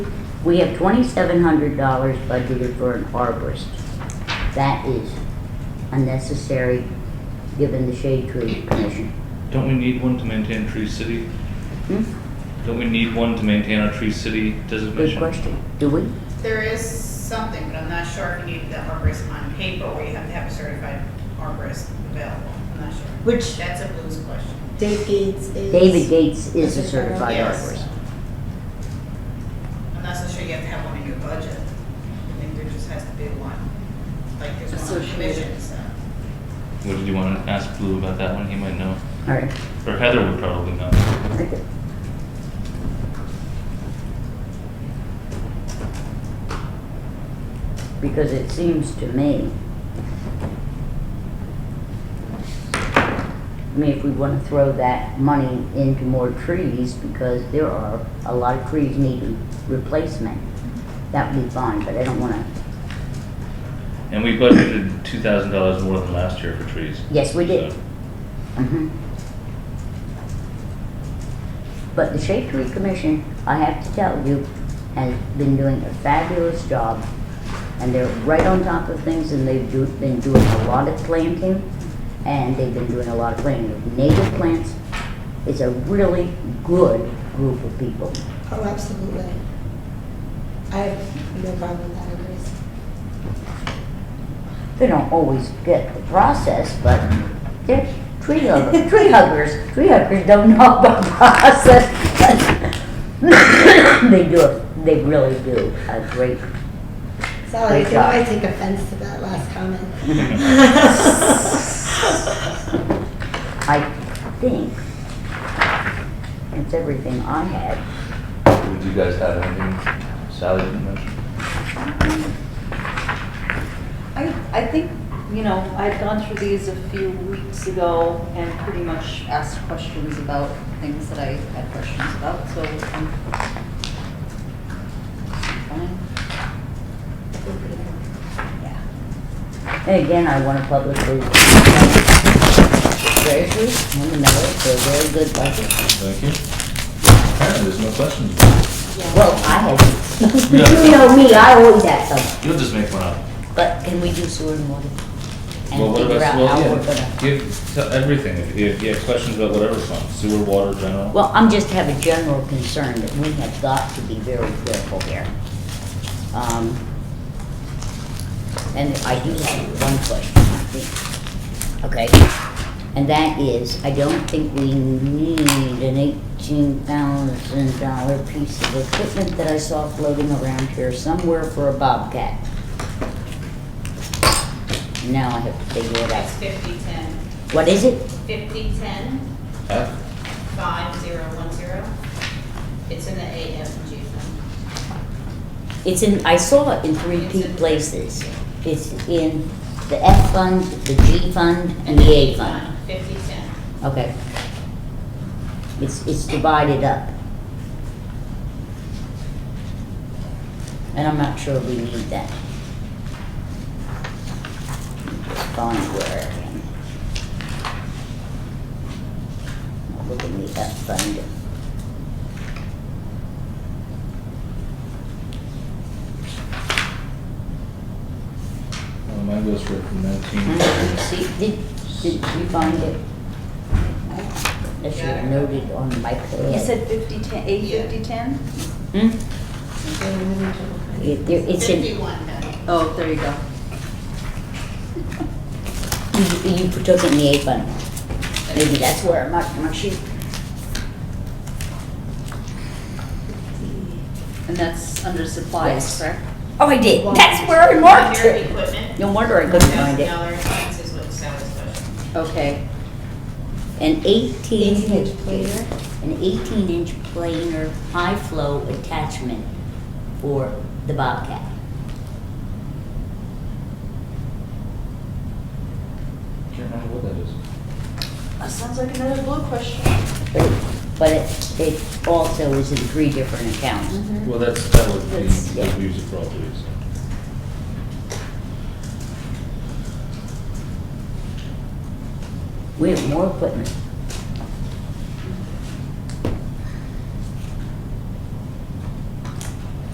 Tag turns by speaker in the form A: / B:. A: We have twenty-seven hundred dollars budgeted for an arborist. That is unnecessary, given the shade tree commission.
B: Don't we need one to maintain Tree City?
A: Hmm?
B: Don't we need one to maintain our Tree City
A: Good
B: designation?
A: question. Do we?
C: There is something, but I'm not sure if you need the arborist on paper or you have to have a certified arborist available. I'm not sure.
D: Which
C: That's a blues question.
D: Dave Gates is.
A: David Gates is a certified
C: Yes.
A: arborist.
C: I'm not so sure you have to have one in your budget. I think there just has to be one, like there's one on the
D: Associated.
C: commission, so.
B: What did you want to ask Blue about that one? He might know.
A: All right.
B: Or Heather would probably know.
A: Okay. Because it seems to me, I mean, if we wanna throw that money into more trees, because there are a lot of trees needing replacement, that would be fine, but I don't wanna,
B: And we budgeted two thousand dollars more than last year for trees.
A: yes, we did.
B: So,
A: Mhm. But the Shade Tree Commission, I have to tell you, has been doing a fabulous job. And they're right on top of things and they've do, been doing a lot of planting. And they've been doing a lot of planting of native plants. It's a really good group of people.
D: Oh, absolutely. I have no problem with that, Grace.
A: They don't always get the process, but they're tree huggers, tree huggers, tree huggers don't know about process. They do, it. they really do a great,
D: Sally,
A: Great
D: you can
A: job.
D: always take offense to that last comment.
A: I think, it's everything I had.
B: Would you guys have anything Sally didn't mention?
E: I, I think, you know, I'd gone through these a few weeks ago and pretty much asked questions about things that I had questions about, so I'm fine. Yeah.
A: And again, I want to publicly thank Treasury and the Miller for a very good budget.
B: Thank you. Apparently, there's no questions.
A: Well, I had,
B: Yeah.
A: you know me, I always have some.
B: You'll just make one up.
A: But can we do sewer and water? And
B: Well, what
A: figure
B: about,
A: out
B: well,
A: how we're
B: yeah,
A: gonna.
B: give, tell everything, if you if you have questions about whatever fund, sewer, water, general.
A: Well, I'm just have a general concern that we have got to be very careful here. Um, And I do have one question, I think. Okay, and that is, I don't think we need an eighteen thousand dollar piece of equipment that I saw floating around here somewhere for a Bobcat. Now I have to figure it out.
C: That's fifty, ten,
A: What is it?
C: fifty, ten,
B: Huh?
C: five, zero, one, zero. It's in the A, F, and G fund.
A: It's in, I saw it in three
C: It's
A: P
C: in-
A: places. It's in the F fund, the G fund, and the A fund.
C: Fifty, ten.
A: Okay. It's, it's divided up. And I'm not sure we need that. Just Find where I can. I'll Look in the F fund.
B: Well, Mine goes for from nineteen.
A: Hmm, See, did, did you find it? That should have noted on my pad.
E: You said fifty, ten, eight,
C: Yeah.
E: fifty, ten?
A: Hmm?
D: Okay, I'm having trouble finding it.
A: It- there- It's in, you,
C: Fifty-one, Patty.
E: Oh, there you go.
A: you took it in the A fund. Maybe that's where it marked, marked you.
E: And that's under supplies,
A: Yes.
E: correct?
A: Oh, I did, that's where I marked
C: Your
A: it.
C: Equipment.
A: No wonder I couldn't find it.
C: $1,000 expense is what Sally's budget.
E: Okay,
A: An eighteen.
D: 18 inch planer.
A: An eighteen inch planer high flow attachment for the Bobcat.
B: Can't remember what that is.
E: that sounds like another blue question.
A: But it- But it, it also is in three different accounts.
E: Mm-hmm.
B: Well, that's, that would be,
A: That's- yeah.
B: that we use it for all trees.
A: Mm-hmm. We have more equipment